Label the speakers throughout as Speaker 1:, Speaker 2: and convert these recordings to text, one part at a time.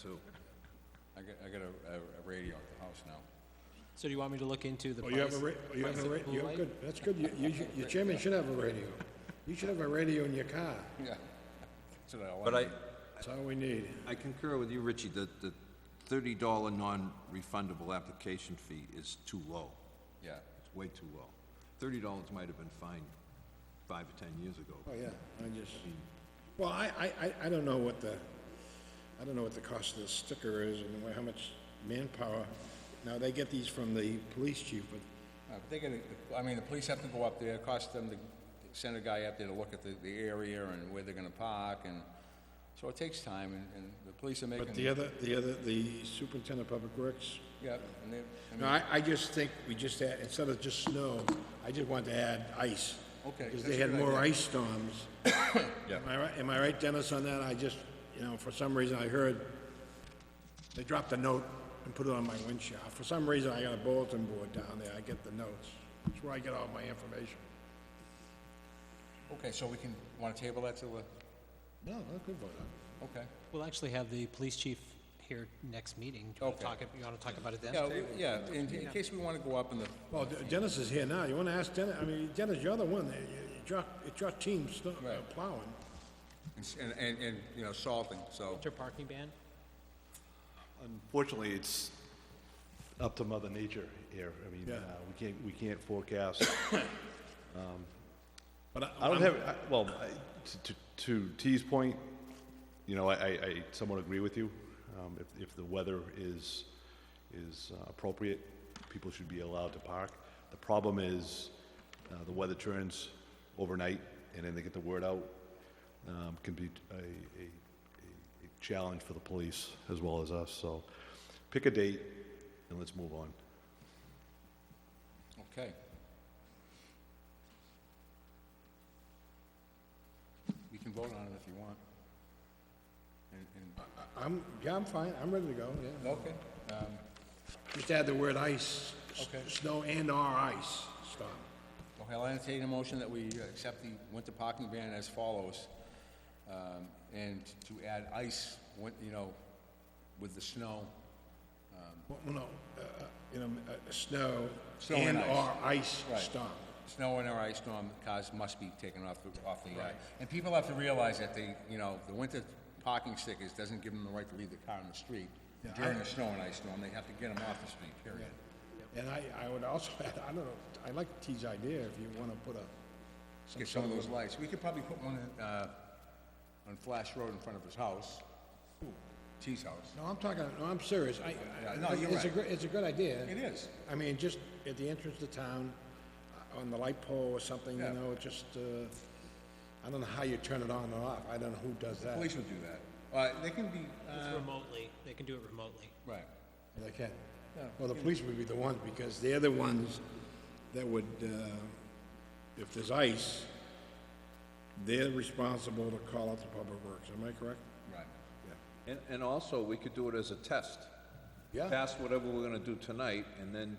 Speaker 1: too. I got, I got a, a- a radio at the house now.
Speaker 2: So do you want me to look into the
Speaker 3: Oh,
Speaker 2: price?
Speaker 3: you have a, ra- oh, you have
Speaker 2: price
Speaker 3: a,
Speaker 2: of
Speaker 3: ra-
Speaker 2: blue
Speaker 3: you have
Speaker 2: light?
Speaker 3: good, that's good, you, you, should- your chairman should have a radio. You should have a radio in your car,
Speaker 1: Yeah. That's what I
Speaker 4: But I,
Speaker 1: wanted.
Speaker 3: that's all we need.
Speaker 4: I concur with you, Richie, that the thirty dollar non-refundable application fee is too low.
Speaker 1: Yeah.
Speaker 4: It's way too low. Thirty dollars might have been fine five or ten years ago.
Speaker 3: Oh, yeah, I just, well, I, I, I, I don't know what the, I don't know what the cost of the sticker is and how much manpower. Now, they get these from the police chief, but
Speaker 1: Uh, but they gotta, I mean, the police have to go up there, it costs them to send a guy up there to look at the, the area and where they're gonna park, and, so it takes time, and, and the police are making.
Speaker 3: But the other, the other, the superintendent of public works,
Speaker 1: Yeah, and they, I
Speaker 3: no,
Speaker 1: mean,
Speaker 3: I, I just think we just add, instead of just snow, I just want to add ice.
Speaker 1: Okay,
Speaker 3: Because
Speaker 1: that's
Speaker 3: they
Speaker 1: a
Speaker 3: had
Speaker 1: good
Speaker 3: more
Speaker 1: idea.
Speaker 3: ice storms. Am I right, am I right, Dennis, on that? I just, you know, for some reason I heard, they dropped a note and put it on my windshield. For some reason, I got a bulletin board down there, I get the notes. That's where I get all my information.
Speaker 1: okay, so we can, wanna table that till, the-
Speaker 3: No, I'm good for that.
Speaker 1: okay.
Speaker 2: We'll actually have the police chief here next meeting. Do you want
Speaker 1: Okay.
Speaker 2: to talk, ab- you want to talk about it then?
Speaker 1: Yeah, we- yeah, in, in case we wanna go up in the,
Speaker 3: Well, De- Dennis is here now, you wanna ask Dennis, I mean, Dennis, you're the one, that- it's your, it's your team sto- uh,
Speaker 1: Right.
Speaker 3: plowing.
Speaker 1: and, and, and, you know, salting, so,
Speaker 2: Winter parking ban?
Speaker 5: Fortunately, it's up to Mother Nature here. I mean,
Speaker 3: Yeah.
Speaker 5: uh, we can't, we can't forecast. um,
Speaker 3: But
Speaker 5: I don't have, I- well, I- to- to to T's point, you know, I- I I somewhat agree with you. Um, If if the weather is, is uh, appropriate, people should be allowed to park. The problem is, uh, the weather turns overnight, and then they get the word out, um, can be a- a a- a challenge for the police as well as us. So pick a date, and let's move on.
Speaker 1: okay. You can vote on it if you want. And, and,
Speaker 3: I'm, yeah, I'm fine, I'm ready to go, yeah.
Speaker 1: okay, um,
Speaker 3: Just add the word ice, s-
Speaker 1: Okay.
Speaker 3: snow and or ice, stop.
Speaker 1: Okay, I'll entertain a motion that we accept the winter parking ban as follows, um, and to add ice, when- you know, with the snow.
Speaker 3: Well, no, uh, uh, you know, uh, uh, snow
Speaker 1: Snow and
Speaker 3: and
Speaker 1: ice.
Speaker 3: or ice,
Speaker 1: Right.
Speaker 3: stop.
Speaker 1: Snow and or ice storm, cars must be taken off, the- off the, uh, and people have to realize that they, you know, the winter parking stickers doesn't give them the right to leave the car in the street
Speaker 3: Yeah, I-
Speaker 1: during the snow and ice storm, they have to get them off the street, period.
Speaker 3: And I, I would also, add, I don't know, I like T's idea if you wanna put a,
Speaker 1: Get some of those lights, we could probably put one, in, uh, on Flash Road in front of his house, T's house.
Speaker 3: no, I'm talking, no, I'm serious, I,
Speaker 1: Yeah,
Speaker 3: I,
Speaker 1: no, you're
Speaker 3: it's a,
Speaker 1: right.
Speaker 3: gr- it's a good idea.
Speaker 1: It is.
Speaker 3: I mean, just at the entrance to town, uh, on the light pole or something, you
Speaker 1: Yeah.
Speaker 3: know, just, uh, I don't know how you turn it on or off, I don't know who does that.
Speaker 1: Police would do that. Uh, they can be, uh,
Speaker 3: Um,
Speaker 2: Remotely, they can do it remotely.
Speaker 1: right.
Speaker 3: They can. Well, the police would be the ones, because they're the ones that would, uh, if there's ice, they're responsible to call out the public works, am I correct?
Speaker 1: Right.
Speaker 4: And, and also, we could do it as a test.
Speaker 3: Yeah.
Speaker 4: Pass whatever we're gonna do tonight, and then,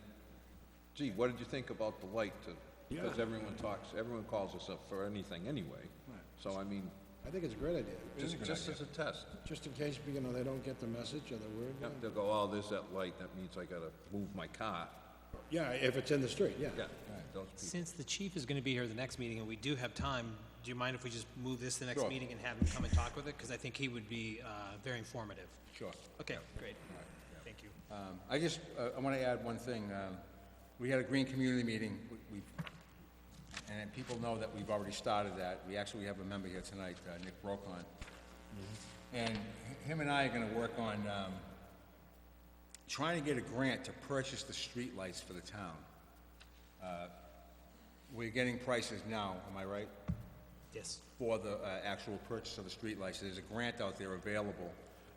Speaker 4: gee, what did you think about the light to? Because
Speaker 3: Yeah.
Speaker 4: everyone talks, everyone calls us up for anything anyway. So I mean,
Speaker 3: I think it's a great idea,
Speaker 4: just, just as a test.
Speaker 3: just in case, you know, they don't get the message or the
Speaker 4: Yep,
Speaker 3: word.
Speaker 4: They'll go, oh, there's that light, that means I gotta move my car.
Speaker 3: Yeah, if it's in the street, yeah.
Speaker 4: Yeah, those people.
Speaker 2: Since the chief is going to be here the next meeting and we do have time, do you mind if we just move this to the next
Speaker 1: Sure.
Speaker 2: meeting and have him come and talk with it? Because I think he would be uh, very informative.
Speaker 1: Sure.
Speaker 2: Okay, great. Thank you.
Speaker 1: Um, I just, uh, I want to add one thing. Um, We had a green community meeting, We- we, and then people know that we've already started that. We actually have a member here tonight, uh, Nick Brokon. And h- him and I are going to work on um, trying to get a grant to purchase the streetlights for the town. Uh, We're getting prices now, am I right?
Speaker 2: Yes.
Speaker 1: for the uh, actual purchase of the streetlights. There's a grant out there available.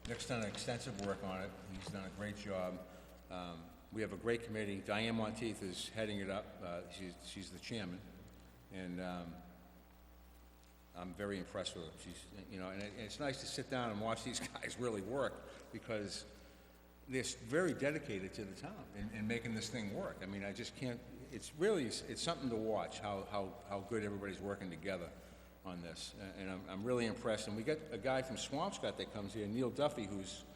Speaker 1: Nick's done extensive work on it. He's done a great job. Um, We have a great committee. Diane Monteith is heading it up. Uh, She's she's the chairman. And um, I'm very impressed with her. She's, you know, and it- and it's nice to sit down and watch these guys really work because they're s- very dedicated to the town and, and making this thing work. I mean, I just can't, it's really, s- it's something to watch, how, how, how good everybody's working together on this. A- And I'm, I'm really impressed. And we got a guy from Swampscott that comes here, Neil Duffy, who's